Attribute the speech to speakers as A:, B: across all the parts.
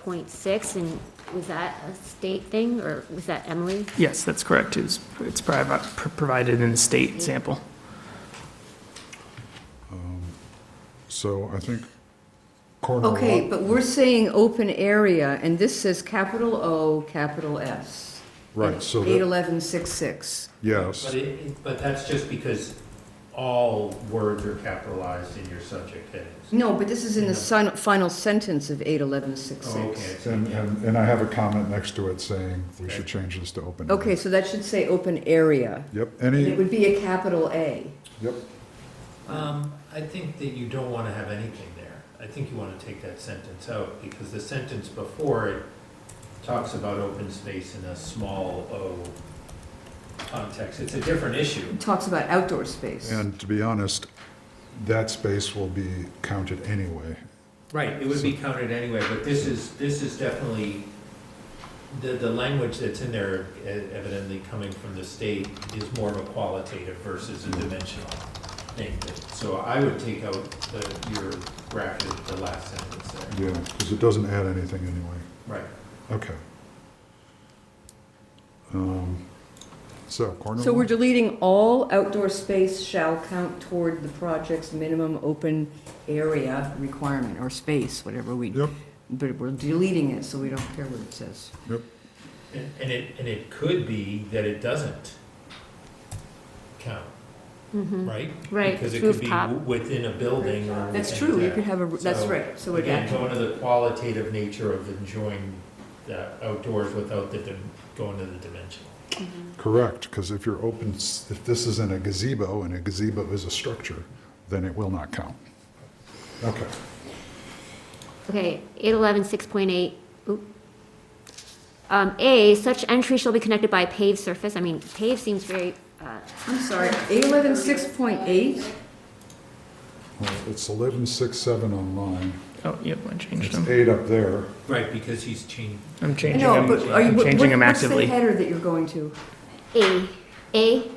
A: point six, and was that a state thing, or was that Emily?
B: Yes, that's correct. It's, it's provi- pr- provided in the state sample.
C: So I think corner lot.
D: Okay, but we're saying open area, and this says capital O, capital S.
C: Right, so that-
D: Eight eleven six six.
C: Yes,
E: But it, it- but that's just because all words are capitalized in your subject headings.
D: No, but this is in the sin- final sentence of eight eleven six
E: Oh, okay.
D: six.
E: it's-
C: and, and and I have a comment next to it saying we should
E: Okay.
C: change this to open. area.
D: Okay, so that should say open area.
C: Yep,
D: And It
C: any,
D: would be a capital A.
C: yep,
E: Um, I think that you don't want to have anything there. I think you want to take that sentence out, because the sentence before it talks about open space in a small O context. It's a different issue.
D: It talks about outdoor space.
C: and to be honest, that space will be counted anyway.
E: Right. It would be counted anyway, but this is, this is definitely, the, the language that's in there e- evidently coming from the state is more of a qualitative versus a dimensional thing. So I would take out the, your bracket, the last sentence there.
C: Yeah, because it doesn't add anything anyway.
E: Right.
C: Okay. Um, So corner
D: So we're
C: lot,
D: deleting all outdoor space shall count toward the project's minimum open area requirement, or space, whatever we,
C: Yep.
D: but we're deleting it, so we don't care what it says.
E: And and it, and it could be that it doesn't count,
A: Mm-hmm.
E: right?
A: Right,
E: Because it
A: roof
E: could be
A: top.
E: w- within a building or.
D: That's
E: within
D: true, you
E: that.
D: could have a, that's
E: So,
D: right, so we're
E: Again,
D: back.
E: going to the qualitative nature of enjoying the outdoors without the, dim- going to the dimensional.
C: correct, because if you're open, s- if this is in a gazebo and a gazebo is a structure, then it will not count. Okay.
A: Okay, eight eleven six point eight, oop. Um, A, such entry shall be connected by paved surface, I mean, paved seems very, uh,
D: I'm sorry, eight eleven six point eight,
C: Well, Uh, It's eleven six seven online.
B: Oh, yep, I changed
C: It's
B: them.
C: eight up there.
E: Right, because he's changing.
B: I'm changing
D: no,
B: them,
D: but are you,
B: I'm
D: what-
B: changing them
D: what's the
B: actively.
D: header that you're going to?
A: A, A,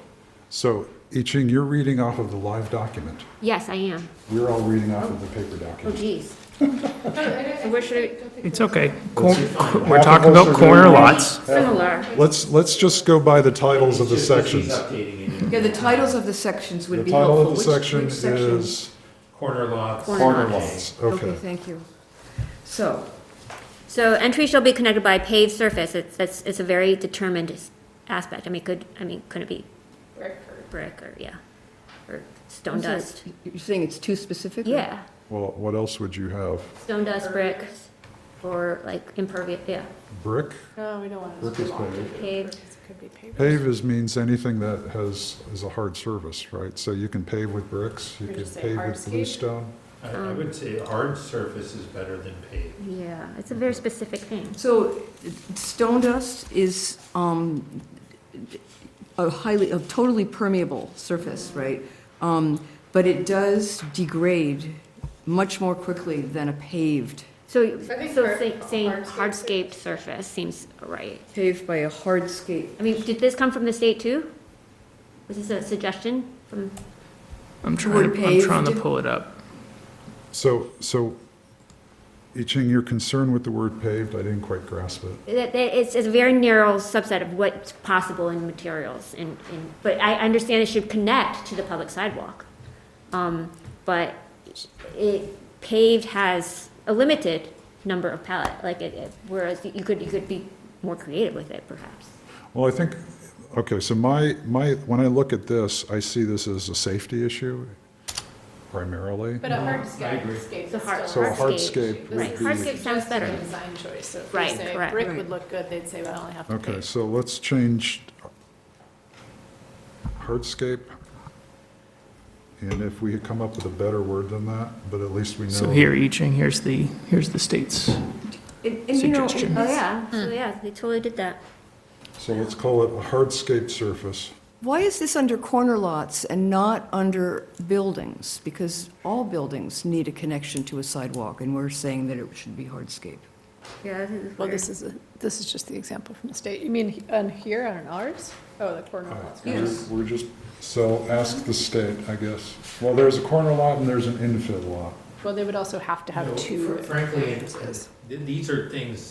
C: So, I Ching, you're reading off of the live document.
A: yes, I am,
C: We're all reading off of the paper
A: oh
C: document.
A: geez. So where should I,
B: It's okay. Cor-
E: fine.
B: We're talking
C: Half
B: about
C: of us are
B: corner
C: doing-
B: lots.
A: similar,
C: Let's, let's just go by the titles of the
E: It's just that
C: sections.
E: He's updating it.
D: Yeah, the titles of the sections
C: The
D: would be
C: title
D: helpful.
C: of the
D: Which-
C: section
D: which section?
C: is
E: Corner lots.
A: Corner
C: corner
A: lots.
C: lots,
D: Okay,
C: okay.
D: thank you. So,
A: so entry shall be connected by paved surface, it's, that's, it's a very determined s- aspect, I mean, could, I mean, could it be? Brick or. Brick, or, yeah, or stone
D: I'm sorry,
A: dust,
D: you're saying it's too specific? or-
A: yeah,
C: Well, what else would you have?
A: stone dust, brick, or like impervious, yeah,
C: Brick?
F: No, we don't want
C: Brick is paved.
A: paved,
F: Could be paved.
C: Pave is, means anything that has, is a hard surface, right? So you can pave with bricks, you
F: Or
C: can
F: just say
C: pave with
F: hardscape.
C: bluestone.
E: I, I
A: Um.
E: would say hard surface is better than paved.
A: yeah, it's a very specific thing.
D: So, stone dust is um, a highly, a totally permeable surface, right? Um, But it does degrade much more quickly than a paved,
A: So,
F: So I think
A: so
F: hard- uh,
A: say- saying
F: hardscape-
A: hardscaped surface seems right.
D: paved by a hardscape.
A: I mean, did this come from the state too? Was this a suggestion from,
B: I'm trying, to- I'm
D: paved.
B: trying to pull it up.
C: So, so, I Ching, your concern with the word paved, I didn't quite grasp it.
A: that, that, it's it's a very narrow subset of what's possible in materials and, and, but I understand it should connect to the public sidewalk. Um, but it, paved has a limited number of palette, like it- it, whereas you could, you could be more creative with it perhaps.
C: Well, I think, okay, so my, my, when I look at this, I see this as a safety issue primarily.
F: But a hardscape
E: agree.
F: is
A: It's a hard-
F: still
C: So a hardscape
A: Right,
C: would be.
A: hardscape sounds
F: Just a
A: better.
F: Design choice, so if
A: Right,
F: you say
A: correct.
F: brick
D: Right.
F: would look good, they'd say, well, I only have to
C: Okay,
F: pave.
C: so let's change hardscape. And if we come up with a better word than that, but at least we know.
B: So here, I Ching, here's the, here's the state's.
D: And and, you know, it-
B: Suggestion.
A: Oh, yeah, so yeah, they totally did that.
C: So let's call it a hardscape surface.
D: why is this under corner lots and not under buildings? Because all buildings need a connection to a sidewalk, and we're saying that it should be hardscape.
A: Yeah, this is
F: Well,
A: weird.
F: this is, a- this is just the example from the state. You mean he- on here, on ours? Oh, the corner lots.
C: We're- We're just, so ask the state, I guess. Well, there's a corner lot and there's an infill lot.
F: Well, they would also have to
E: You
F: have
E: know,
F: two
E: fr- Frankly,
F: entrances.
E: th- these are things